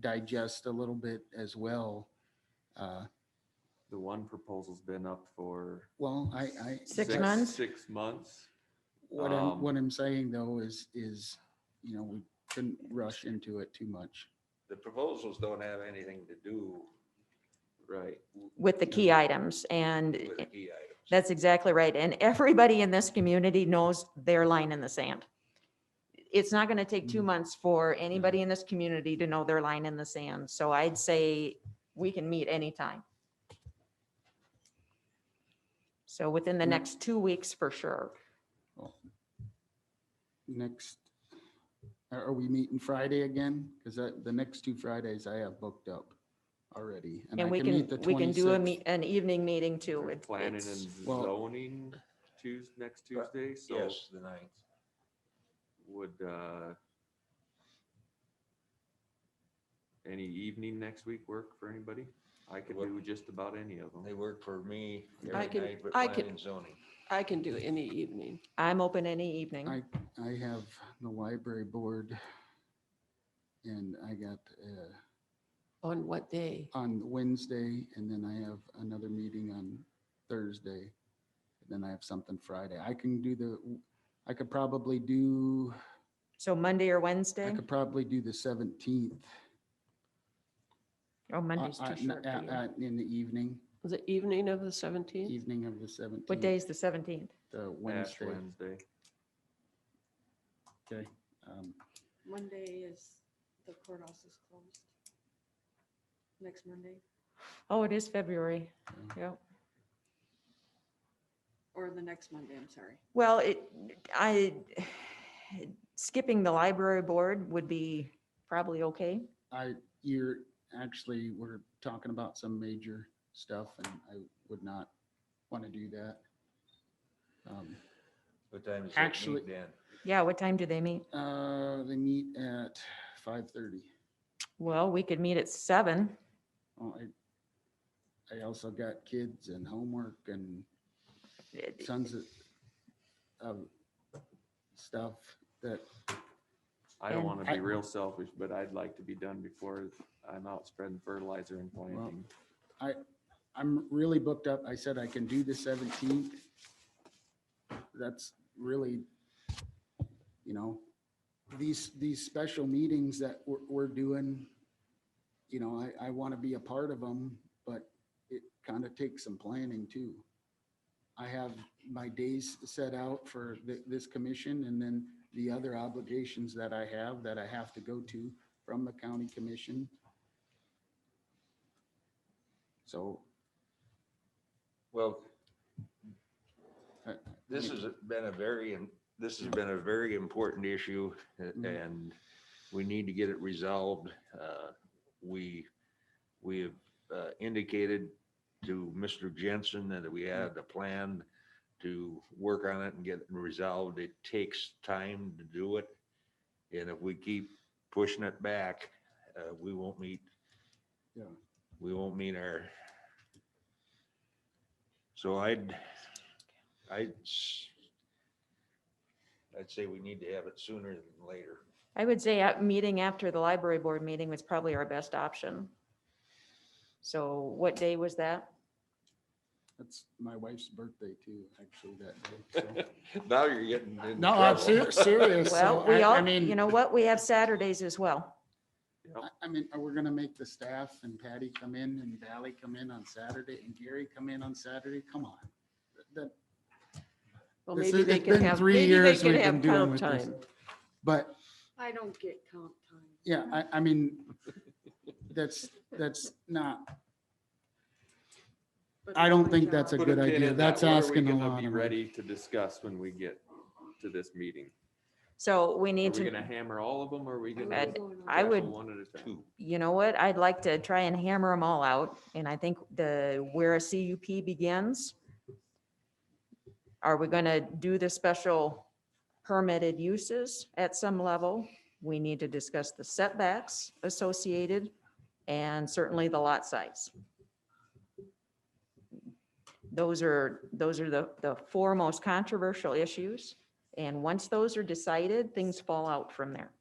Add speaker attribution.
Speaker 1: digest a little bit as well. Uh,
Speaker 2: The one proposal's been up for.
Speaker 1: Well, I, I.
Speaker 3: Six months?
Speaker 2: Six months.
Speaker 1: What I'm,
Speaker 2: Um,
Speaker 1: what I'm saying though is, is, you know, we shouldn't rush into it too much.
Speaker 4: The proposals don't have anything to do
Speaker 2: Right.
Speaker 3: with the key items. And
Speaker 4: with
Speaker 3: it-
Speaker 4: key items.
Speaker 3: that's exactly right. And everybody in this community knows their line in the sand. It's not going to take two
Speaker 1: Mhm.
Speaker 3: months for anybody in this community to know their line in the sand. So I'd say we can meet anytime. So within the
Speaker 1: Mm.
Speaker 3: next two weeks for sure.
Speaker 1: Next, are are we meeting Friday again? Because the next two Fridays I have booked up already.
Speaker 3: And we
Speaker 1: meet
Speaker 3: can,
Speaker 1: the
Speaker 3: we can do a
Speaker 1: 26th.
Speaker 3: meet, an evening meeting too.
Speaker 2: We're
Speaker 3: It-
Speaker 2: Planning and
Speaker 3: it's-
Speaker 1: Well- uh,
Speaker 2: zoning Tues, next
Speaker 4: Right.
Speaker 2: Tuesday, so
Speaker 4: Yes, the ninth.
Speaker 2: would, uh, any evening next week work for anybody? I could
Speaker 4: What-
Speaker 2: do just about any of them.
Speaker 4: They work for me
Speaker 5: I
Speaker 4: every
Speaker 5: can-
Speaker 4: night, but
Speaker 5: I can-
Speaker 4: planning and zoning.
Speaker 5: I can do any evening.
Speaker 3: I'm open any evening.
Speaker 1: I have the library board and I got, uh,
Speaker 5: On what day?
Speaker 1: on Wednesday, and then I have another meeting on Thursday. and Then I have something Friday. I can do the, I could probably do,
Speaker 3: So Monday or
Speaker 1: I
Speaker 3: Wednesday?
Speaker 1: could probably do the seventeenth. uh,
Speaker 3: Oh, Monday's too short for you.
Speaker 1: In the evening,
Speaker 5: The evening of the 17th?
Speaker 1: evening of the seventeenth.
Speaker 3: What day is the 17th?
Speaker 1: The
Speaker 2: Ash
Speaker 1: Wednesday.
Speaker 2: Wednesday.
Speaker 1: Okay. Um,
Speaker 6: Monday is, the courthouse is closed. Next Monday,
Speaker 3: Oh, it is February.
Speaker 1: Yeah.
Speaker 3: Yeah.
Speaker 6: or the next Monday, I'm sorry.
Speaker 3: Well, it, I, skipping the library board would be probably okay.
Speaker 1: I, you're, actually, we're talking about some major stuff and I would not want to do that. Um,
Speaker 4: What time is that
Speaker 1: Actually-
Speaker 4: meet then?
Speaker 3: Yeah, what time do they meet?
Speaker 1: Uh, they meet at five thirty.
Speaker 3: Well, we could meet at seven.
Speaker 1: Well, Oh, I, I also got kids and homework and tons of, of stuff that,
Speaker 2: I don't
Speaker 3: And-
Speaker 2: want to be
Speaker 1: I-
Speaker 2: real selfish, but I'd like to be done before I'm out spreading fertilizer and planting.
Speaker 1: I'm really booked up. I said I can do the seventeenth. That's really, you know, these, these special meetings that we're, we're doing, you know, I, I want to be a part of them, but it kind of takes some planning too. I have my days set out for thi- this commission and then the other obligations that I have that I have to go to from the county commission. So
Speaker 4: Well,
Speaker 1: Uh,
Speaker 4: this
Speaker 1: me-
Speaker 4: has been a very, im- this has been a very important issue uh,
Speaker 1: Mhm.
Speaker 4: and we need to get it resolved. Uh, We, we have uh, indicated to Mr. Jensen that we had a plan to work on it and get it resolved. It takes time to do it. And if we keep pushing it back, uh, we won't meet.
Speaker 1: Yeah.
Speaker 4: We won't meet our. So I'd, I'd, s- I'd say we need to have it sooner than later.
Speaker 3: I would say a meeting after the library board meeting was probably our best option. So what day was that?
Speaker 1: That's my wife's birthday too, actually, that day.
Speaker 4: Now you're getting into
Speaker 1: No, I'm
Speaker 4: trouble.
Speaker 1: ser- serious.
Speaker 3: Well,
Speaker 1: So
Speaker 3: we
Speaker 1: I, I
Speaker 3: all, you
Speaker 1: mean,
Speaker 3: know what? We have Saturdays as well.
Speaker 1: I- I mean, are we gonna make the staff and Patty come in and Valley come in on Saturday and Gary come in on Saturday? Come on. That,
Speaker 5: Well,
Speaker 1: This
Speaker 5: maybe
Speaker 1: is-
Speaker 5: they
Speaker 1: it's
Speaker 5: can
Speaker 1: been
Speaker 5: have,
Speaker 1: three
Speaker 5: maybe they
Speaker 1: years
Speaker 5: can
Speaker 1: we've been
Speaker 5: have
Speaker 1: dealing
Speaker 5: comp
Speaker 1: with this.
Speaker 5: time.
Speaker 1: but,
Speaker 6: I don't get comp time.
Speaker 1: yeah, I, I mean, that's, that's not,
Speaker 6: but
Speaker 1: I
Speaker 6: it's
Speaker 1: don't
Speaker 6: my
Speaker 1: think that's
Speaker 6: job.
Speaker 1: a
Speaker 2: Put
Speaker 1: good
Speaker 2: pin
Speaker 1: idea.
Speaker 2: in that.
Speaker 1: That's
Speaker 2: What are we
Speaker 1: asking a
Speaker 2: gonna
Speaker 1: lot
Speaker 2: Be
Speaker 1: of me.
Speaker 2: ready to discuss when we get to this meeting.
Speaker 3: So we
Speaker 2: Are
Speaker 3: need
Speaker 2: we
Speaker 3: to,
Speaker 2: gonna hammer all of them or are we
Speaker 6: I
Speaker 2: gonna?
Speaker 6: was going on
Speaker 3: I
Speaker 2: tackle
Speaker 3: would-
Speaker 2: One at a time.
Speaker 4: Two.
Speaker 3: you know what? I'd like to try and hammer them all out. And I think the, where a CUP begins, are we going to do the special permitted uses at some level? We need to discuss the setbacks associated and certainly the lot size. Those are, those are the, the four most controversial issues. And once those are decided, things fall out from there.